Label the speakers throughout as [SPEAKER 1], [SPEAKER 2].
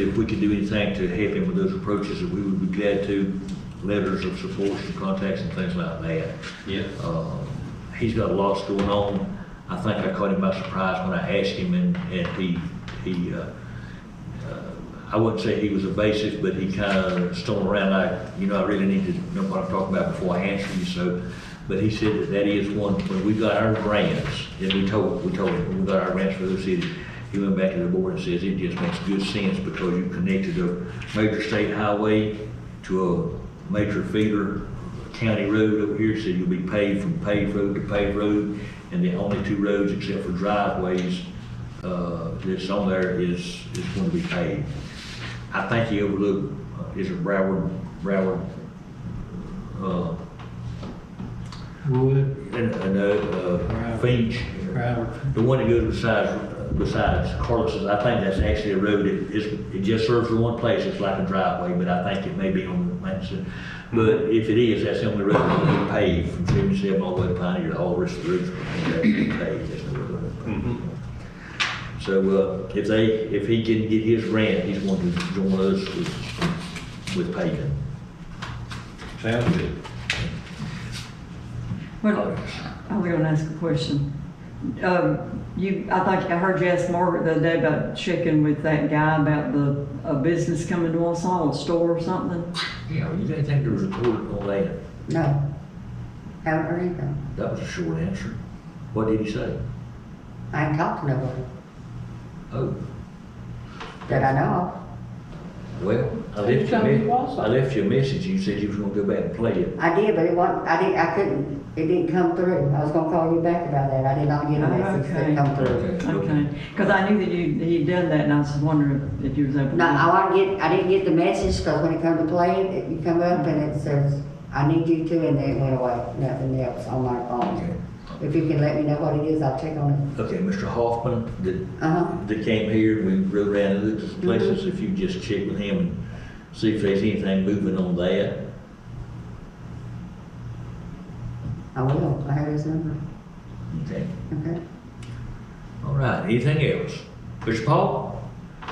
[SPEAKER 1] If we could do anything to help him with those approaches, we would be glad to. Letters of support, and contacts and things like that.
[SPEAKER 2] Yeah.
[SPEAKER 1] Uh, He's got lots going on. I think I caught him by surprise when I asked him and, and he, he, uh, I wouldn't say he was evasive, but he kind of stoned around. I, you know, I really need to know what I'm talking about before I answer you. So, but he said that that is one, when we got our grants, and we told, we told him, when we got our grants for those cities, he went back to the board and says, it just makes good sense because you connected a major state highway to a major feeder county road over here, so you'll be paved from paved road to paved road. And the only two roads except for driveways, uh, that's on there is, is going to be paved. I think he overlooked, uh, is it Broward, Broward, uh,
[SPEAKER 3] Wood,
[SPEAKER 1] and, and, uh, Finch.
[SPEAKER 3] Broward.
[SPEAKER 1] The one that goes besides, besides Carlos's, I think that's actually a road, it is, it just serves for one place, it's like a driveway, but I think it may be on the Manson. But if it is, that's the only road that will be paved from seventy-seven all the way to Pioneer, all the rest of the roads will be paved, that's the road. So, uh, if they, if he can get his grant, he's going to join us with, with paving.
[SPEAKER 2] Sounds good.
[SPEAKER 4] Well, I was gonna ask a question. Um, you, I think I heard you ask Margaret the other day about checking with that guy about the, a business coming to Wausau, a store or something.
[SPEAKER 1] Yeah, you didn't think there was a court on that?
[SPEAKER 5] No, haven't heard anything.
[SPEAKER 1] That was a short answer. What did he say?
[SPEAKER 5] I ain't talked to nobody
[SPEAKER 1] Oh,
[SPEAKER 5] that I know
[SPEAKER 1] well, I
[SPEAKER 6] He
[SPEAKER 1] left you, a
[SPEAKER 6] told me
[SPEAKER 1] me-
[SPEAKER 6] also.
[SPEAKER 1] I left you a message, you said you was gonna go back and play it.
[SPEAKER 5] of. I did, but it wasn't, I didn't, I couldn't, it didn't come through. I was gonna call you back about that. I did not get a message
[SPEAKER 4] Okay.
[SPEAKER 5] that come through.
[SPEAKER 4] Okay, because I knew that you, he'd done that and I was just wondering if you was able to.
[SPEAKER 5] No, I want to get, I didn't get the message, cause when it come to play, it, you come up and it says, I need you to, and then it went away. Nothing else on my phone. If you can let me know what it is, I'll check on
[SPEAKER 1] Okay, Mr. Hoffman, that,
[SPEAKER 5] it. Uh-huh.
[SPEAKER 1] that came here, we rode around and looked at
[SPEAKER 6] Mm-hmm.
[SPEAKER 1] some places, if you just check with him and see if there's anything moving on that.
[SPEAKER 5] I will. I have his number.
[SPEAKER 1] Okay,
[SPEAKER 5] Okay.
[SPEAKER 1] all right, anything else? Mr. Paul,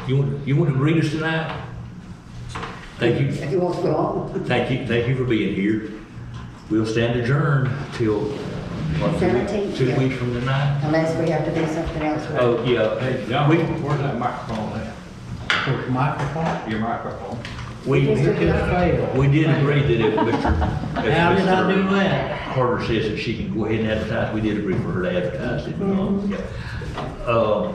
[SPEAKER 1] you want, you want to greet us tonight? Thank you.
[SPEAKER 5] If you want to go on.
[SPEAKER 1] Thank you, thank you for being here. We'll stand adjourned till, what, two weeks-
[SPEAKER 5] Seventeenth,
[SPEAKER 1] two
[SPEAKER 5] yeah.
[SPEAKER 1] weeks from tonight?
[SPEAKER 5] Unless we have to do something else. with it.
[SPEAKER 1] Oh, yeah,
[SPEAKER 2] Hey, John, where's that microphone at?
[SPEAKER 3] With microphone.
[SPEAKER 2] Your microphone.
[SPEAKER 1] we,
[SPEAKER 5] Just
[SPEAKER 3] It just failed.
[SPEAKER 1] we did agree that if Mr. if
[SPEAKER 3] How did I do
[SPEAKER 1] Mr.
[SPEAKER 3] that?
[SPEAKER 1] Carter says that she can go ahead and advertise, we did agree for her to advertise it,
[SPEAKER 3] Mm-hmm.
[SPEAKER 1] um, yeah. Uh,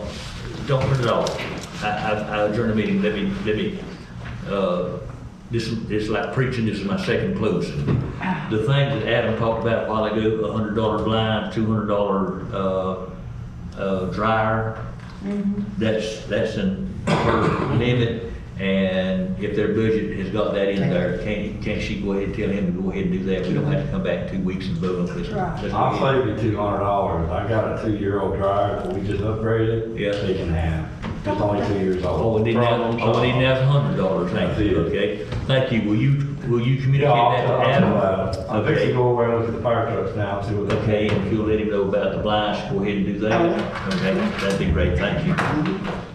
[SPEAKER 1] don't put it off, I, I, I adjourn the meeting, let me, let me, uh, this, this is like preaching, this is my second closing. The thing that Adam talked about a while ago, a hundred dollar blind, two hundred dollar, uh, uh, dryer,
[SPEAKER 3] Mm-hmm.
[SPEAKER 1] that's, that's in her limit, and if their budget has got that in there, can, can she go ahead and tell him to go ahead and do that? We don't have to come back two weeks and vote on this. That's
[SPEAKER 7] I'll
[SPEAKER 1] what
[SPEAKER 7] save you two hundred dollars. I got a two-year-old dryer that we just upgraded.
[SPEAKER 1] Yeah. Oh,
[SPEAKER 7] They can have. It's only two years old.
[SPEAKER 1] All we need now,
[SPEAKER 7] Problem
[SPEAKER 1] all we need now is a hundred dollars,
[SPEAKER 7] That's
[SPEAKER 1] thank
[SPEAKER 7] it.
[SPEAKER 1] you, okay? Thank you, will you, will you communicate
[SPEAKER 7] Yeah,
[SPEAKER 1] that
[SPEAKER 7] I'll,
[SPEAKER 1] to
[SPEAKER 7] I'll,
[SPEAKER 1] Adam?
[SPEAKER 7] I'll fix to
[SPEAKER 1] Okay,
[SPEAKER 7] go away and look at the fire trucks now, and see what they
[SPEAKER 1] okay, and if you'll let him know about the blinds, go ahead and do that, okay? That'd be great, thank you.